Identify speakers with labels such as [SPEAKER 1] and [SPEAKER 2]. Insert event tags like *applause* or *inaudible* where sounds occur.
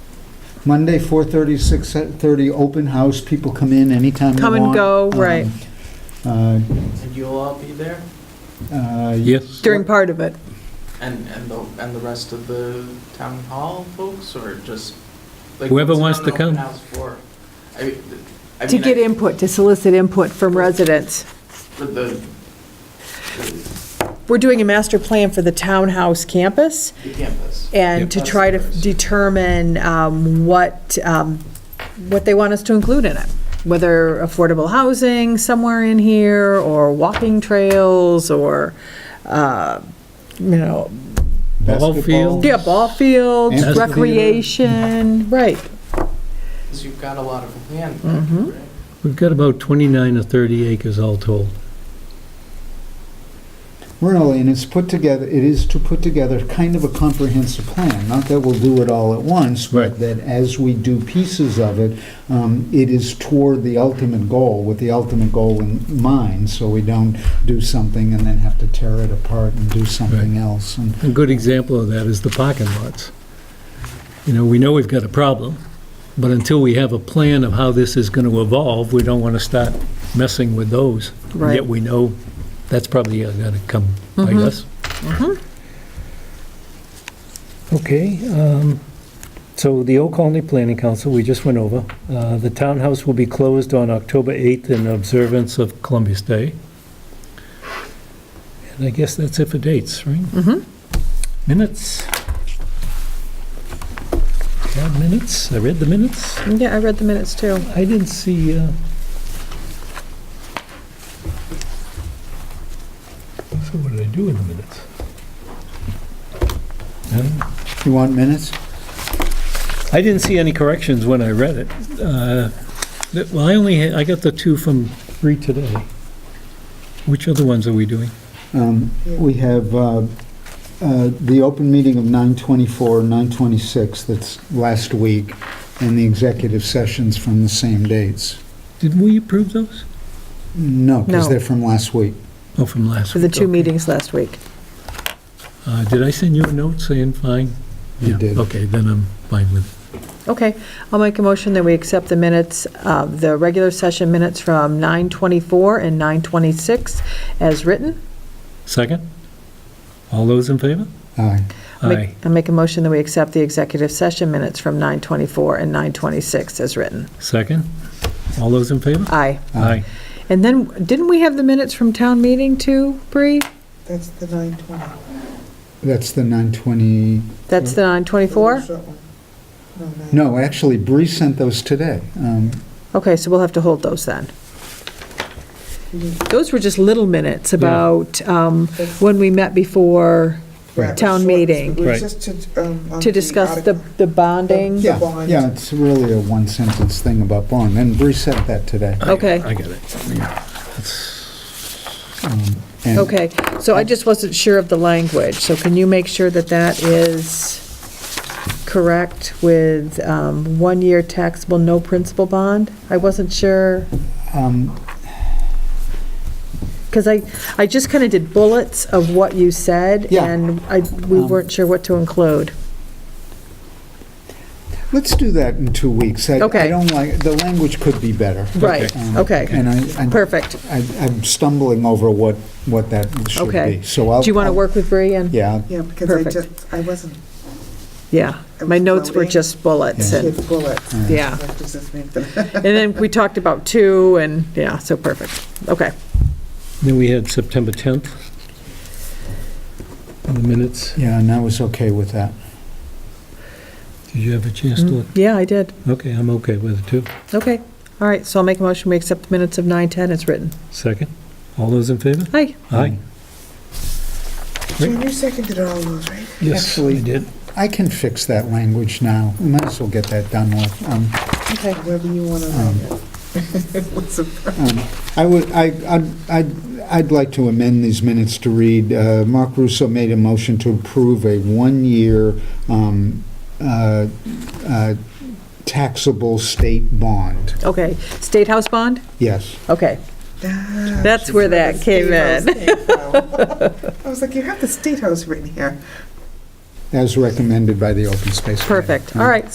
[SPEAKER 1] Monday, 4:30, 6:30, open house, people come in anytime they
[SPEAKER 2] Come
[SPEAKER 1] want.
[SPEAKER 2] and go, right.
[SPEAKER 1] Um,
[SPEAKER 3] And you'll all be there?
[SPEAKER 1] uh, uh,
[SPEAKER 4] Yes.
[SPEAKER 2] during part of it.
[SPEAKER 3] And, and the, and the rest of the town hall folks, or just? like,
[SPEAKER 4] Whoever
[SPEAKER 3] what's
[SPEAKER 4] wants
[SPEAKER 3] it
[SPEAKER 4] to
[SPEAKER 3] on an open
[SPEAKER 4] come.
[SPEAKER 3] house for? I mean, th- I
[SPEAKER 2] To
[SPEAKER 3] mean, I-
[SPEAKER 2] get input, to solicit input from residents.
[SPEAKER 3] But the,
[SPEAKER 2] We're doing a master plan for the townhouse campus
[SPEAKER 3] the campus.
[SPEAKER 2] and to
[SPEAKER 3] Yep.
[SPEAKER 2] try to determine um, what, um, what they want us to include in it, whether affordable housing somewhere in here, or walking trails, or, uh, you know,
[SPEAKER 4] Ball
[SPEAKER 1] basketball.
[SPEAKER 4] field.
[SPEAKER 2] yeah, ball fields,
[SPEAKER 1] Amphitheater.
[SPEAKER 2] recreation,
[SPEAKER 3] Mm-hmm.
[SPEAKER 2] right.
[SPEAKER 3] 'Cause you've got a lot of land.
[SPEAKER 2] Mhm.
[SPEAKER 3] right?
[SPEAKER 4] We've got about 29 or 30 acres all told.
[SPEAKER 1] Really, and it's put together, it is to put together kind of a comprehensive plan, not that we'll do it all at once, but
[SPEAKER 4] Right.
[SPEAKER 1] that as we do pieces of it, um, it is toward the ultimate goal, with the ultimate goal in mind, so we don't do something and then have to tear it apart and do something else. And
[SPEAKER 4] A good example of that is the parking lots. You know, we know we've got a problem, but until we have a plan of how this is going to evolve, we don't want to start messing with those.
[SPEAKER 2] Right.
[SPEAKER 4] Yet we know that's probably going to come by
[SPEAKER 2] Mhm.
[SPEAKER 4] us. Okay, um, so the Old Colony Planning Council, we just went over. Uh, The townhouse will be closed on October 8th in observance of Columbus Day. And I guess that's it for dates, right?
[SPEAKER 2] Mhm.
[SPEAKER 4] Minutes. Yeah, minutes. I read the minutes.
[SPEAKER 2] Yeah, I read the minutes too.
[SPEAKER 4] I didn't see, uh... So what did I do in the minutes? Um,
[SPEAKER 1] You want minutes?
[SPEAKER 4] I didn't see any corrections when I read it. Uh, that- Well, I only, had- I got the two from Reed today. Which other ones are we doing?
[SPEAKER 1] Um, We have uh, uh, the open meeting of 9:24, 9:26, that's last week, and the executive sessions from the same dates.
[SPEAKER 4] Did we approve those?
[SPEAKER 1] No, because
[SPEAKER 2] No.
[SPEAKER 1] they're from last week.
[SPEAKER 4] Oh, from last
[SPEAKER 2] For
[SPEAKER 4] week.
[SPEAKER 2] the two
[SPEAKER 4] okay.
[SPEAKER 2] meetings last week.
[SPEAKER 4] Uh, Did I send you a note saying fine?
[SPEAKER 1] You
[SPEAKER 4] Yeah,
[SPEAKER 1] did.
[SPEAKER 4] Okay, then I'm fine with it.
[SPEAKER 2] Okay, I'll make a motion that we accept the minutes, of the regular session minutes from 9:24 and 9:26 as written.
[SPEAKER 4] Second? All those in favor?
[SPEAKER 1] Aye.
[SPEAKER 2] Make-
[SPEAKER 4] Aye.
[SPEAKER 2] I'll make a motion that we accept the executive session minutes from 9:24 and 9:26 as written.
[SPEAKER 4] Second? All those in favor?
[SPEAKER 2] Aye.
[SPEAKER 4] Aye.
[SPEAKER 2] And then, didn't we have the minutes from town meeting too, Bree?
[SPEAKER 5] That's the 920.
[SPEAKER 1] That's the 920,
[SPEAKER 2] That's the 9:24?
[SPEAKER 5] No,
[SPEAKER 1] no, actually, Bree sent those today. Um,
[SPEAKER 2] Okay, so we'll have to hold those then.
[SPEAKER 5] nine.
[SPEAKER 2] Those were just little minutes
[SPEAKER 4] Yeah.
[SPEAKER 2] about um, when we met before
[SPEAKER 1] Right.
[SPEAKER 2] town meeting.
[SPEAKER 5] It was
[SPEAKER 4] Right.
[SPEAKER 5] just to, um, on
[SPEAKER 2] to discuss the
[SPEAKER 5] article.
[SPEAKER 2] the bonding.
[SPEAKER 5] The
[SPEAKER 1] Yeah,
[SPEAKER 5] bond.
[SPEAKER 1] yeah, it's really a one-sentence thing about bond, and Bree sent that today.
[SPEAKER 2] Okay.
[SPEAKER 4] I got it.
[SPEAKER 1] Um, And
[SPEAKER 2] Okay, so I just wasn't sure of the language, so can you make sure that that is correct with um, one-year taxable, no principal bond? I wasn't sure,
[SPEAKER 1] um,
[SPEAKER 2] because I, I just kind of did bullets of what you said,
[SPEAKER 1] Yeah.
[SPEAKER 2] and I, we
[SPEAKER 1] Um,
[SPEAKER 2] weren't sure what to include.
[SPEAKER 1] Let's do that in two weeks. I- I
[SPEAKER 2] Okay.
[SPEAKER 1] don't like, the language could be better.
[SPEAKER 2] Right,
[SPEAKER 1] Um,
[SPEAKER 2] okay,
[SPEAKER 1] And I, I-
[SPEAKER 2] perfect.
[SPEAKER 1] I- I'm stumbling over what, what that should
[SPEAKER 2] Okay.
[SPEAKER 1] be. So I'll.
[SPEAKER 2] Do you want to
[SPEAKER 1] I'll-
[SPEAKER 2] work with Bree and?
[SPEAKER 1] Yeah,
[SPEAKER 5] Yeah, because I
[SPEAKER 2] Perfect.
[SPEAKER 5] just, I wasn't,
[SPEAKER 2] Yeah,
[SPEAKER 5] I
[SPEAKER 2] my
[SPEAKER 5] was
[SPEAKER 2] notes were
[SPEAKER 5] floating.
[SPEAKER 2] just bullets,
[SPEAKER 1] Yeah.
[SPEAKER 5] she
[SPEAKER 2] and,
[SPEAKER 5] had bullets.
[SPEAKER 2] yeah.
[SPEAKER 5] That was just me. *laughs*
[SPEAKER 2] And then we talked about two, and, yeah, so perfect, okay.
[SPEAKER 4] Then we had September 10th. The minutes.
[SPEAKER 1] yeah, and I was okay with that.
[SPEAKER 4] Did you have a chance to look?
[SPEAKER 2] Yeah, I did.
[SPEAKER 4] Okay, I'm okay with it too.
[SPEAKER 2] Okay, all right, so I'll make a motion, we accept the minutes of 9:10 as written.
[SPEAKER 4] Second? All those in favor?
[SPEAKER 2] Aye.
[SPEAKER 1] Um,
[SPEAKER 4] Aye.
[SPEAKER 5] John, you seconded all those, right?
[SPEAKER 4] Yes, I did.
[SPEAKER 1] I can fix that language now. We might as well get that done with. Um,
[SPEAKER 2] Okay.
[SPEAKER 5] Whether you want to write it. *laughs* What's the
[SPEAKER 1] Um, I would, I, I'd- I'd, I'd like to amend these minutes to read, uh, Mark Russo made a motion to approve a one-year um, uh, uh, taxable state bond.
[SPEAKER 2] Okay, State House bond?
[SPEAKER 1] Yes.
[SPEAKER 2] Okay,
[SPEAKER 5] Ah,
[SPEAKER 2] That's
[SPEAKER 5] she's
[SPEAKER 2] where
[SPEAKER 5] where
[SPEAKER 2] that
[SPEAKER 5] the
[SPEAKER 2] came
[SPEAKER 5] state house
[SPEAKER 2] in.
[SPEAKER 5] came from.
[SPEAKER 2] *laughs*
[SPEAKER 5] I was like, you have the State House written here.
[SPEAKER 1] As recommended by the Open Space Committee.
[SPEAKER 2] perfect, all right,